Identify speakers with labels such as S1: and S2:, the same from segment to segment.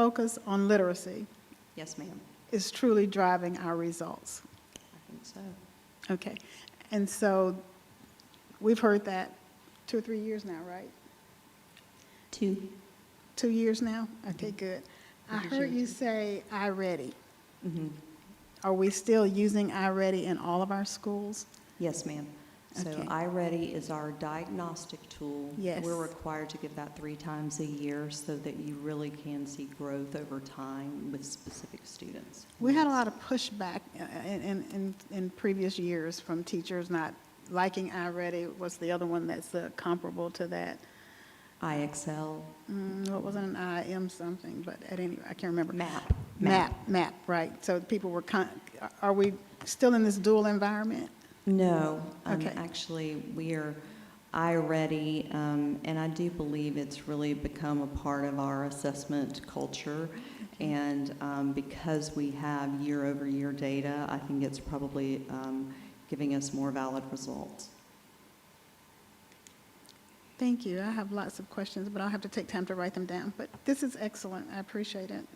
S1: focus on literacy
S2: Yes, ma'am.
S1: is truly driving our results.
S2: I think so.
S1: Okay, and so we've heard that two or three years now, right?
S2: Two.
S1: Two years now? Okay, good. I
S2: Yes,
S1: heard
S2: yes.
S1: you say iReady.
S2: Mhm.
S1: Are we still using iReady in all of our schools?
S2: Yes, ma'am. So
S1: Okay.
S2: iReady is our diagnostic tool.
S1: Yes.
S2: We're required to give that three times a year so that you really can see growth over time with specific students.
S1: We had a lot of pushback uh, in, in, in- in previous years from teachers not liking iReady. What's the other one that's uh, comparable to that?
S2: IXL,
S1: Mm, What was it, an IM something, but at any, I can't remember.
S2: MAP.
S1: MAP, MAP, right. So people were, con- are we still in this dual environment?
S2: No, um,
S1: Okay.
S2: actually, we are iReady, um, and I do believe it's really become a part of our assessment culture. And um, because we have year-over-year data, I think it's probably um, giving us more valid results.
S1: Thank you. I have lots of questions, but I'll have to take time to write them down. But this is excellent. I appreciate it.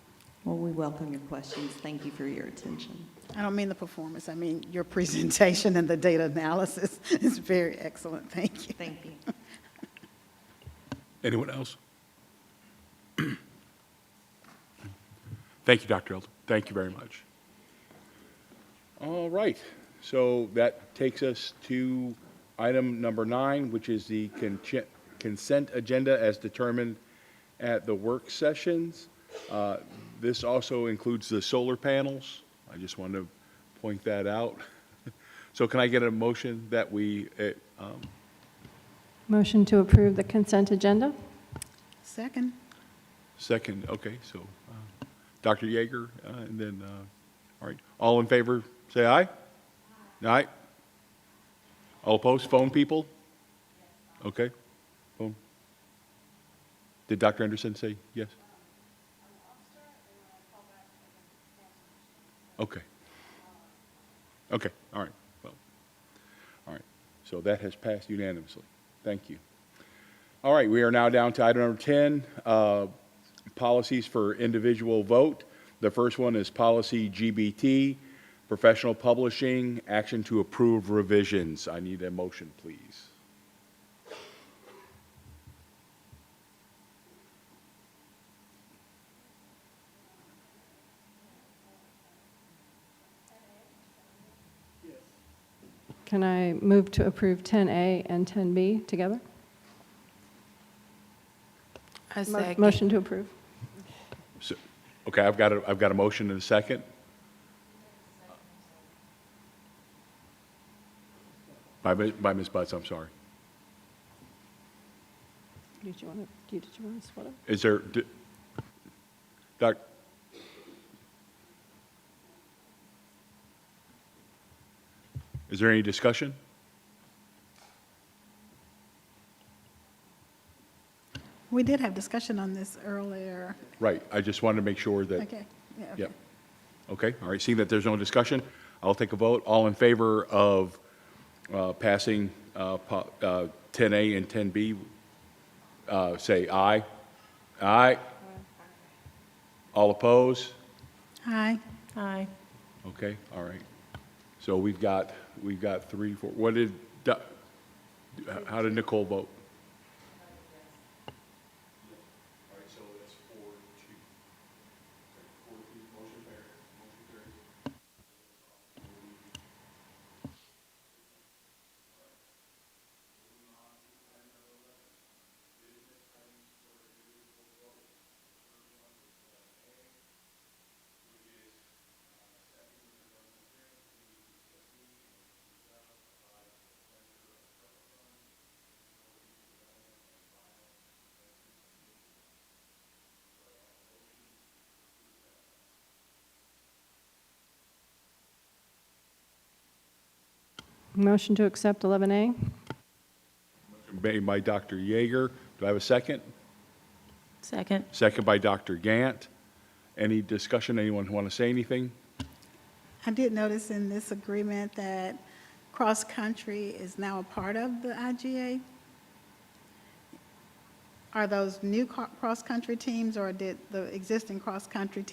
S2: Well, we welcome your questions. Thank you for your attention.
S1: I don't mean the performance, I mean your presentation and the data analysis is very excellent. Thank you.
S2: Thank you.
S3: Anyone else? Thank you, Dr. Elton. Thank you very much. All right, so that takes us to item number nine, which is the conche- consent agenda as determined at the work sessions. Uh, This also includes the solar panels. I just wanted to point that out. So can I get a motion that we uh, um,
S4: Motion to approve the consent agenda?
S1: Second,
S3: Second, okay, so uh, Dr. Yeager, uh, and then, uh, all right, all in favor, say aye? Aye? All opposed, phone people? Okay, phone. Did Dr. Anderson say yes? Okay. Okay, all right, well, all right, so that has passed unanimously, thank you. All right, we are now down to item number 10, uh, policies for individual vote. The first one is policy GBT, professional publishing, action to approve revisions. I need a motion, please.
S4: Can I move to approve 10A and 10B together?
S5: I
S4: Mo-
S5: second.
S4: Motion to approve.
S3: So- Okay, I've got a, I've got a motion and a second. By, Mi- by Ms. Butts, I'm sorry.
S4: Did you want to, did you want to split it?
S3: Is there, d- Doc? Is there any discussion?
S1: we did have discussion on this earlier.
S3: Right, I just wanted to make sure that.
S1: Okay. Yeah, okay.
S3: Yep. Okay, all right, seeing that there's no discussion, I'll take a vote. All in favor of uh, passing uh, po- uh, 10A and 10B, uh, say aye. Aye? All opposed?
S1: Aye.
S5: Aye.
S3: Okay, all right. So we've got, we've got three, four, what did, Do- how did Nicole vote?
S4: Motion to accept 11A?
S3: Made by Dr. Yeager. Do I have a second?
S5: Second.
S3: Second by Dr. Gant. Any discussion? Anyone want to say anything?
S1: I did notice in this agreement that cross-country is now a part of the IGA. Are those new co- cross-country teams, or did the existing cross-country teams